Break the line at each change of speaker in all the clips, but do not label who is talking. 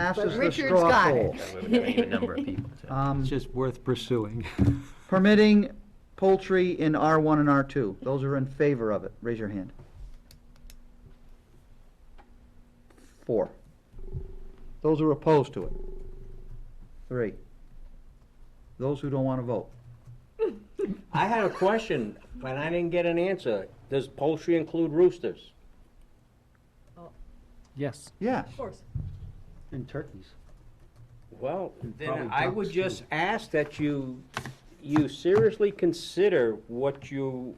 passes the
Richard's
straw
got
poll.
it.
We're giving you a number of people, so.
Um,
It's just worth pursuing.
Permitting poultry in R1 and R2. Those are in favor of it. Raise your hand. Four. Those are opposed to it. Three. Those who don't want to vote.
I had a question, but I didn't get an answer. Does poultry include roosters?
Yes,
Yes.
course.
and turkeys.
Well,
probably
then I would
ducks, too.
just ask that you, you seriously consider what you,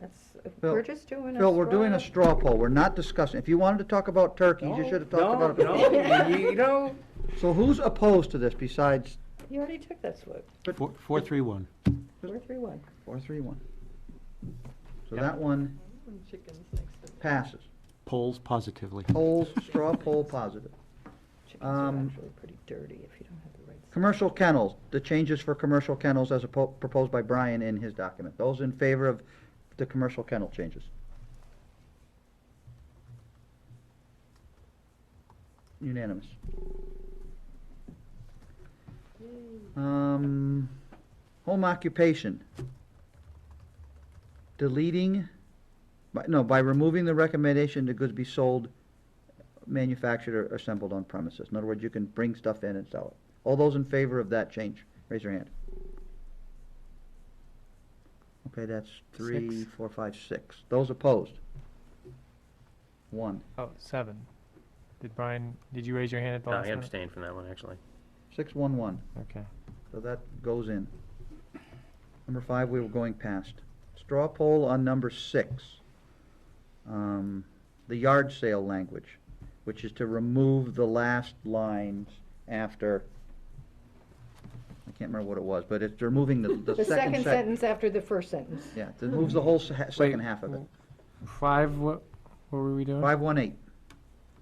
That's,
Phil-
we're just doing a.
Phil, we're doing a
straw-
straw poll. We're not discussing. If you wanted to talk about turkeys, you should have talked
no,
about it.
no, you know,
So who's opposed to this besides
You already took that swoop.
Four, four, three, one.
We're three one.
four, three, one? So that one
Chickens next to.
passes.
Polls positively.
Polls, straw poll positive.
Chickens are
Um,
actually pretty dirty if you don't have the right. s-
Commercial kennels, the changes for commercial kennels as oppo- proposed by Brian in his document. Those in favor of the commercial kennel changes? Unanimous. Um, home occupation. Deleting, by, no, by removing the recommendation that goods be sold, manufactured or assembled on premises. In other words, you can bring stuff in and sell it. All those in favor of that change, raise your hand. Okay, that's three,
Six.
four, five, six. Those opposed? One.
Oh, seven. Did Brian, did you raise your hand at the
No,
last
I
minute?
abstained from that one, actually.
Six, one, one.
Okay.
So that goes in. Number five, we were going past. Straw poll on number six. Um, The yard sale language, which is to remove the last lines after, I can't remember what it was, but it's removing the,
The second
sec-
sentence after the first sentence.
Yeah, it moves the whole se- ha- second half of it.
Five, what, what were we doing?
Five, one, eight.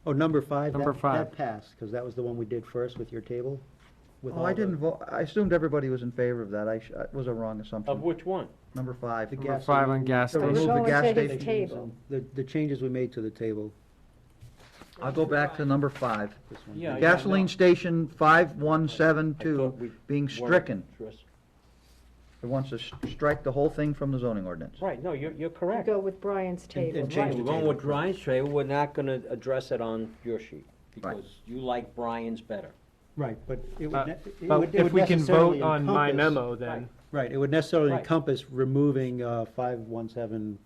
Oh, number five?
Number
that-
five.
That passed, because that was the one we did first with your table. with
Oh,
all
I
the-
didn't vote, I assumed everybody was in favor of that. I, sh- it was a wrong
of
assumption.
which one?
Number five.
The
Number five
gasoline-
on gas
So remove
station.
the
Go
gas
into his
station.
table.
The, the changes we made to the table,
I'll go back to number five.
this one.
Yeah, yeah,
Gasoline
no.
station five one seven
I thought we
two being
weren't
stricken.
interested.
It wants to s- strike the whole thing from the zoning ordinance.
Right, no, you're, you're
You
correct.
Go with Brian's table.
and
Right,
change
we're
the
going
table.
with Brian's trade, we're not gonna address it on your sheet, because you like Brian's better.
Right, but it would,
Uh,
ne- it
But
would- it
if
would
we can
necessarily
vote on my
encompass-
memo, then.
Right, it would necessarily
Right.
encompass removing, uh, five, one, seven.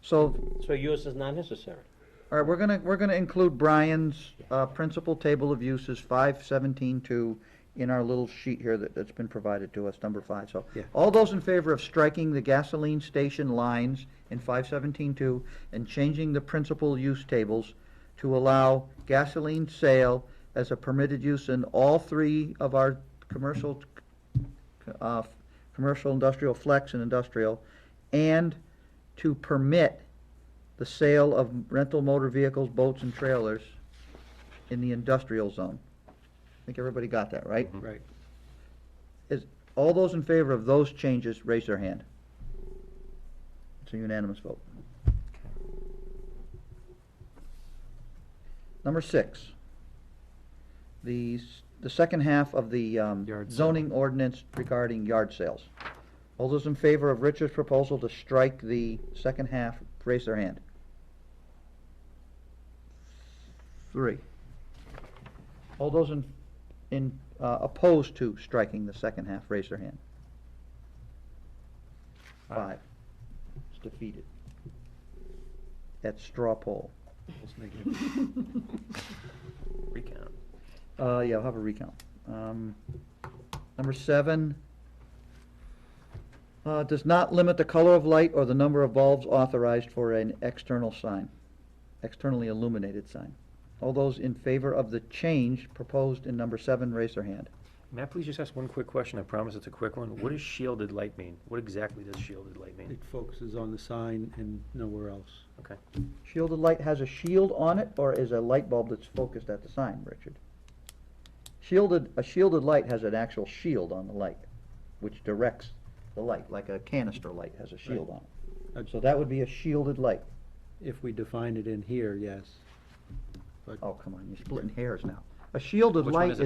So,
So yours is not necessary.
all right, we're gonna, we're gonna include Brian's, uh, principal table of uses, five seventeen two, in our little sheet here that, that's been provided to us, number five, so.
Yeah.
All those in favor of striking the gasoline station lines in five seventeen two and changing the principal use tables to allow gasoline sale as a permitted use in all three of our commercial, uh, f- commercial, industrial, flex, and industrial, and to permit the sale of rental motor vehicles, boats, and trailers in the industrial zone. I think everybody got that, right?
Right.
Is, all those in favor of those changes, raise their hand. It's a unanimous vote. Number six. The, s- the second half of the um,
Yard sale.
zoning ordinance regarding yard sales. All those in favor of Richard's proposal to strike the second half, raise their hand. Three. All those in, in, uh, opposed to striking the second half, raise their hand. Five. It's defeated. At straw poll.
Let's make it-
Recount.
Uh, yeah, I'll have a recount. Um, number seven. Uh, does not limit the color of light or the number of bulbs authorized for an external sign, externally illuminated sign. All those in favor of the change proposed in number seven, raise their hand.
May I please just ask one quick question? I promise it's a quick one. What does shielded light mean? What exactly does shielded light mean?
It focuses on the sign and nowhere else.
Okay.
Shielded light has a shield on it or is a light bulb that's focused at the sign, Richard? Shielded, a shielded light has an actual shield on the light, which directs the light, like a canister light has a shield on
Uh,
it. So that would be a shielded light.
If we define it in here, yes.
Oh, come on, you're splitting hairs now.
A shielded
Which one
light
is it?